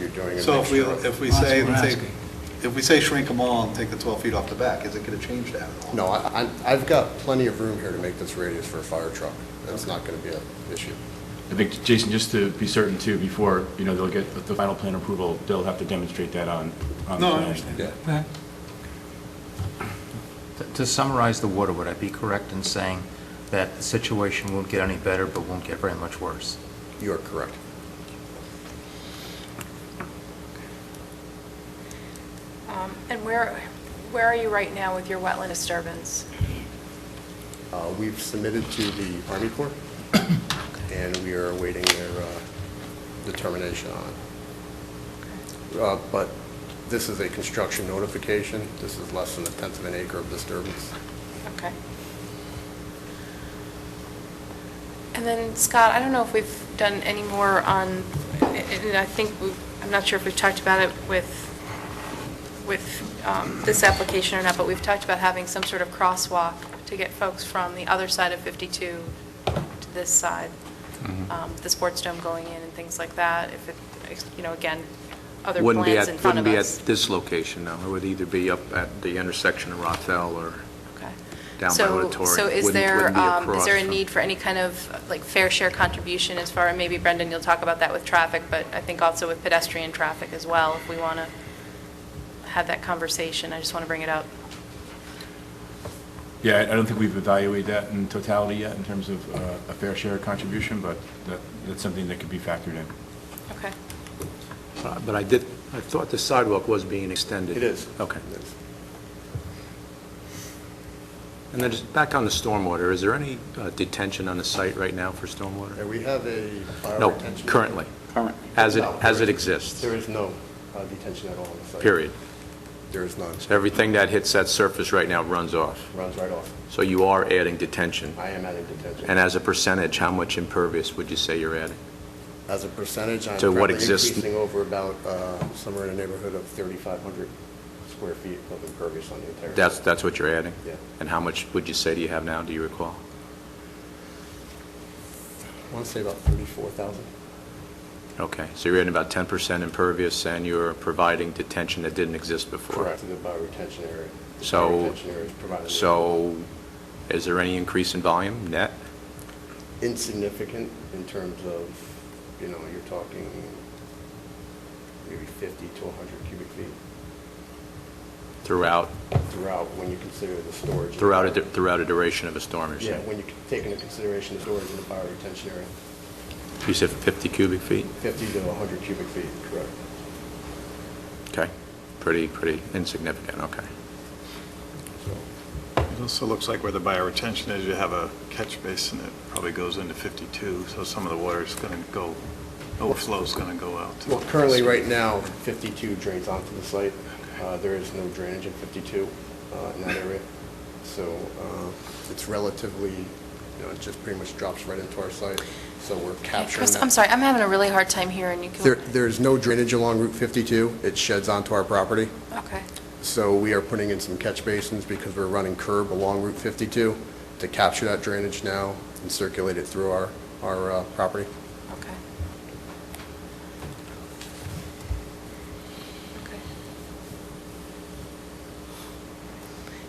doing a So if we, mixture of- if we That's say, what we're take- asking. if we say shrink them all and take the 12 feet off the back, is it going to change that at all? No, I, I- I've got plenty of room here to make this radius for a fire truck. That's not going to be an issue. I think, Jason, just to be certain too, before, you know, they'll get the final plan approval, they'll have to demonstrate that on, on the No, I plan. understand. Yeah. Okay. To- To summarize the water, would I be correct in saying that the situation won't get any better, but won't get very much worse? You are correct. Um, And where, where are you right now with your wetland disturbance? Uh, We've submitted to the Army Corps, and we are awaiting their uh, determination on it. Uh, But this is a construction notification. This is less than a tenth of an acre of disturbance. Okay. And then Scott, I don't know if we've done any more on, and I think, we- I'm not sure if we've talked about it with, with um, this application or not, but we've talked about having some sort of crosswalk to get folks from the other side of 52 to this side, Mm-hmm. um, the sports dome going in and things like that, if it, you know, again, other Wouldn't be plans at- in front of us. Wouldn't be at this location, no. It would either be up at the intersection of Rothel or Okay. down by So- Auditorium. So is Wouldn't- there, wouldn't be um, is across there a from- need for any kind of, like, fair share contribution as far, and maybe Brendan, you'll talk about that with traffic, but I think also with pedestrian traffic as well, if we want to have that conversation, I just want to bring it up. Yeah, I I don't think we've evaluated that in totality yet in terms of uh, a fair share contribution, but that, that's something that could be factored in. Okay. Uh, But I did, I thought the sidewalk was being extended. It is. Okay. It is. And then just back on the stormwater, is there any uh, detention on the site right now for stormwater? And we have a fire No, retention- currently, Current. as it, No, there as it is- exists, There is no uh, detention at all on the site. period. There is none. So everything that hits that surface right now runs off. Runs right off. So you are adding detention. I am adding detention. And as a percentage, how much impervious would you say you're adding? As a percentage, I'm To what currently exists- increasing over about, uh, somewhere in the neighborhood of 3,500 square feet of impervious on the entire. That's, that's what you're adding? Yeah. And how much would you say do you have now, do you recall? I want to say about 34,000. Okay, so you're adding about 10% impervious, and you're providing detention that didn't exist before? To the bioretention area. The So, bioretention area is provided- so is there any increase in volume net? Insignificant in terms of, you know, you're talking maybe 50 to 100 cubic feet throughout, throughout when you consider the storage. and- throughout, a du- throughout a duration of a storm, you're Yeah, saying? when you take into consideration the storage in the bioretention area, You said 50 cubic feet? 50 to 100 cubic feet, correct. Okay, pretty, pretty insignificant, okay. So. It also looks like where the bioretention is, you have a catch basin that probably goes into 52, so some of the water is going to go, overflow's going to go out. to Well, the currently, street. right now, 52 drains onto the site. Uh, There is no drainage in 52 uh, in that area, so uh, it's relatively, you know, it just pretty much drops right into our site, so we're capturing Chris, that. I'm sorry, I'm having a really hard time hearing you. Can- There- There's no drainage along Route 52. It sheds onto our property. Okay. So we are putting in some catch basins because we're running curb along Route 52 to capture that drainage now and circulate it through our, our uh, property. Okay. Okay.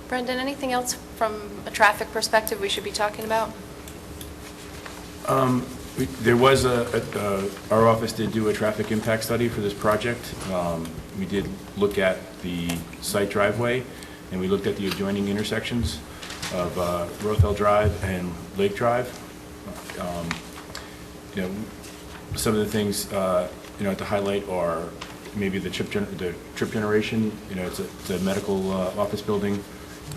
Brendan, anything else from a traffic perspective we should be talking about? We- There was a, a- uh, our office did do a traffic impact study for this project. Um, We did look at the site driveway, and we looked at the adjoining intersections of uh, Rothel Drive and Lake Drive. Um, You know, some of the things, uh, you know, to highlight are maybe the trip, gen- the trip generation, you know, it's a, it's a medical uh, office building.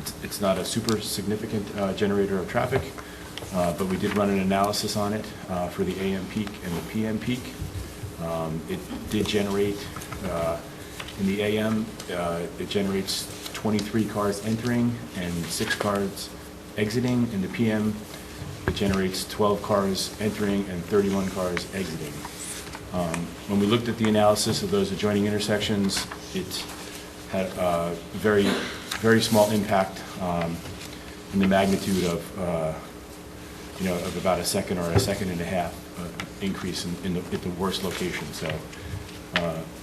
It's- It's not a super significant uh, generator of traffic, uh, but we did run an analysis on it uh, for the AM peak and the PM peak. Um, It did generate, uh, in the AM, uh, it generates 23 cars entering and six cars exiting. In the PM, it generates 12 cars entering and 31 cars exiting. Um, When we looked at the analysis of those adjoining intersections, it had a very, very small impact um, in the magnitude of, uh, you know, of about a second or a second and a half uh, increase in- in the, at the worst location. So uh,